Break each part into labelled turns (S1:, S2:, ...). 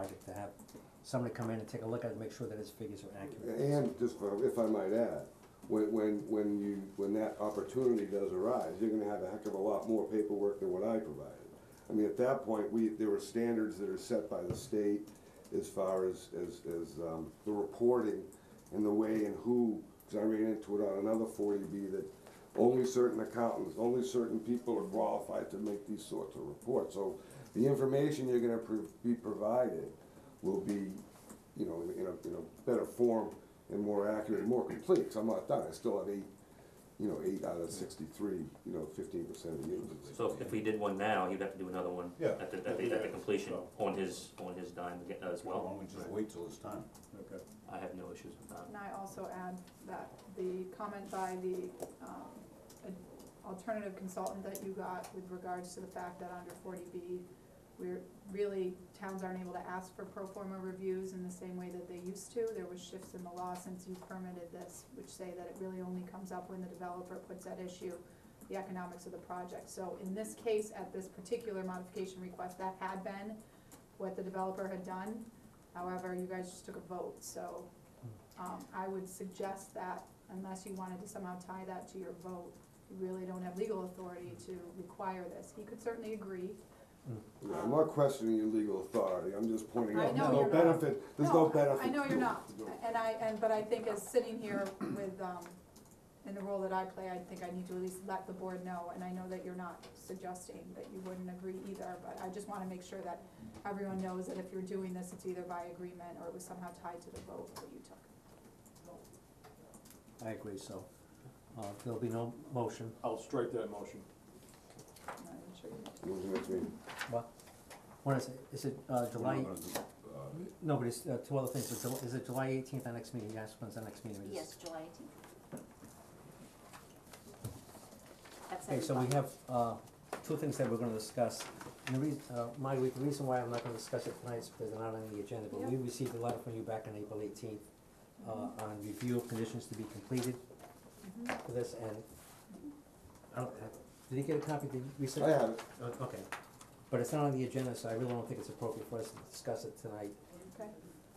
S1: project to have somebody come in and take a look at it, make sure that his figures are accurate.
S2: And just for- if I might add, when, when, when you, when that opportunity does arise, you're gonna have a heck of a lot more paperwork than what I provided. I mean, at that point, we, there were standards that are set by the state as far as, as, as, um, the reporting and the way and who, cause I ran into it on another forty B that only certain accountants, only certain people are qualified to make these sorts of reports. So the information you're gonna pro- be provided will be you know, in, in a, in a better form and more accurate, and more complete, 'cause I'm not done, I still have eight, you know, eight out of sixty-three, you know, fifteen percent of the units.
S3: So if we did one now, he'd have to do another one
S4: Yeah.
S3: at the, at the, at the completion
S4: So-
S3: on his, on his dime aga- as
S4: Why
S3: well.
S4: don't we just wait till it's time? Okay.
S3: I have no issues with that.
S5: And I also add that the comment by the, um, an alternative consultant that you got with regards to the fact that under forty B, we're, really, towns aren't able to ask for pro forma reviews in the same way that they used to. There was shifts in the law since you permitted this, which say that it really only comes up when the developer puts at issue the economics of the project. So in this case, at this particular modification request, that had been what the developer had done. However, you guys just took a vote, so um, I would suggest that unless you wanted to somehow tie that to your vote, you really don't have legal authority to require this. He could certainly agree.
S2: Yeah, I'm not questioning your legal authority, I'm just pointing
S5: I
S2: out,
S5: know
S2: there's no
S5: you're not.
S2: benefit, there's no benefit.
S5: I know
S2: to
S5: you're
S2: it.
S5: not,
S2: No.
S5: and I, and, but I think as sitting here with, um, in the role that I play, I think I need to at least let the board know, and I know that you're not suggesting that you wouldn't agree either, but I just wanna make sure that everyone knows that if you're doing this, it's either by agreement or it was somehow tied to the vote that you took.
S1: I agree, so, uh, there'll be no motion,
S6: I'll strike that motion.
S5: And I'm sure you know.
S2: When's the next meeting?
S1: what, when is it, is it, uh, July? No, but it's, uh, two other things, is it, is it July eighteenth, our next meeting, yes, when's the next meeting? We
S7: Yes,
S1: just-
S7: July eighteenth. That's
S1: Okay, so we
S7: everybody.
S1: have, uh, two things that we're gonna discuss, and the reason, uh, my, the reason why I'm not gonna discuss it tonight is because they're not on the agenda, but we received a letter from you back on April eighteenth, uh, on review of conditions to be completed for this, and, I don't, have- did you get a copy, did we send?
S2: I have it,
S1: Uh, Okay, but it's not on the agenda, so I really don't think it's appropriate for us to discuss it tonight,
S5: Mm-hmm. Okay,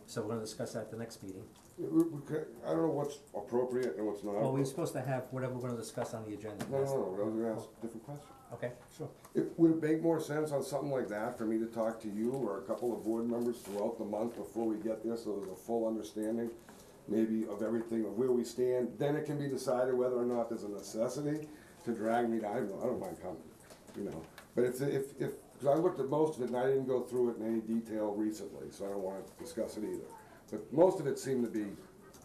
S1: so we're gonna discuss that at the next meeting.
S2: Yeah, we- we could- I don't know what's appropriate and what's not.
S1: Well, we're
S2: appropriate.
S1: supposed to have whatever we're gonna discuss on the agenda.
S2: No, no,
S1: that's-
S2: no, I was gonna ask a different question.
S1: Okay, sure.
S2: It, would it make more sense on something like that for me to talk to you or a couple of board members throughout the month before we get there, so there's a full understanding maybe of everything, of where we stand, then it can be decided whether or not there's a necessity to drag me to, I don't, I don't mind coming, you know. But if, if, if, cause I looked at most of it and I didn't go through it in any detail recently, so I don't wanna discuss it either. But most of it seemed to be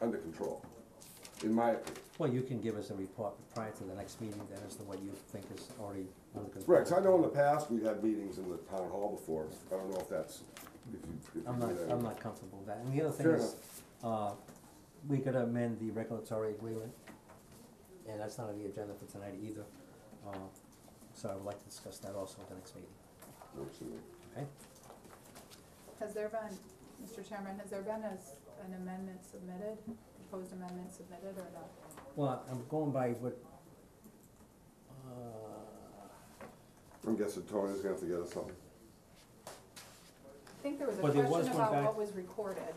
S2: under control, in my opinion.
S1: Well, you can give us a report prior to the next meeting, then, as to what you think is already under control.
S2: Right, 'cause I know in the past, we've had meetings in the town hall before, I don't know if that's, if you, if you do
S1: I'm not,
S2: that.
S1: I'm not comfortable with that, and the other thing
S2: Fair
S1: is, uh, we could amend the regulatory agreement, and that's not on the agenda for tonight either, uh, so I would like to discuss that also at the next meeting,
S2: Works for me.
S1: okay?
S5: Has there been, Mr. Chairman, has there been a s an amendment submitted, proposed amendment submitted or not?
S1: Well, I'm going by what, uh,
S2: I'm guessing Tony's gonna have to get us something.
S5: I think there was a
S1: Well, there was
S5: question
S1: one
S5: about
S1: back-
S5: what was recorded,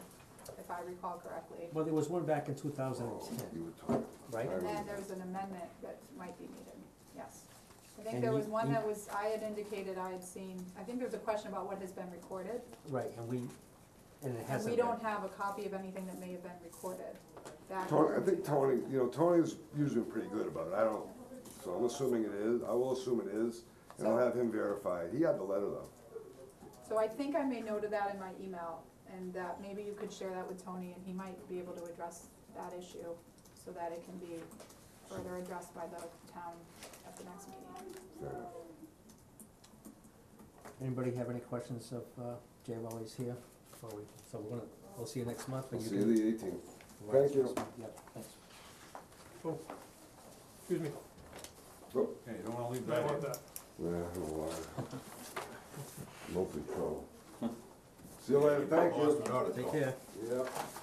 S5: if I recall correctly.
S1: well, there was one back in two thousand
S2: Oh,
S1: and ten,
S2: You were talking.
S1: right?
S2: I
S5: And then
S2: remember.
S5: there was an amendment that might be needed, yes. I think
S1: And
S5: there
S1: you-
S5: was one
S1: you-
S5: that was, I had indicated I had seen, I think there was a question about what has been recorded.
S1: Right, and we, and it
S5: And
S1: hasn't
S5: we
S1: been.
S5: don't have a copy of anything that may have been recorded back.
S2: Tony, I think Tony, you know, Tony's usually pretty good about it, I don't, so I'm assuming it is, I will assume it is, and I'll
S5: So-
S2: have him verify it, he had the letter though.
S5: So I think I made note of that in my email, and that maybe you could share that with Tony, and he might be able to address that issue, so that it can be further addressed by the town at the next meeting.
S2: Fair enough.
S1: Anybody have any questions of, uh, Jay while he's here? Before we, so we're gonna, we'll see you next month,
S2: We'll
S1: and you
S2: see
S1: can.
S2: you the eighteenth.
S1: provide us
S2: Thank you.
S1: next month. Yep, thanks.
S6: Excuse me,
S2: So,
S4: Hey, you don't wanna leave
S6: I
S4: that in?
S6: want that.
S2: yeah, I don't know why. Mostly trouble. See you later, thank you.
S1: Take care.
S2: Yep.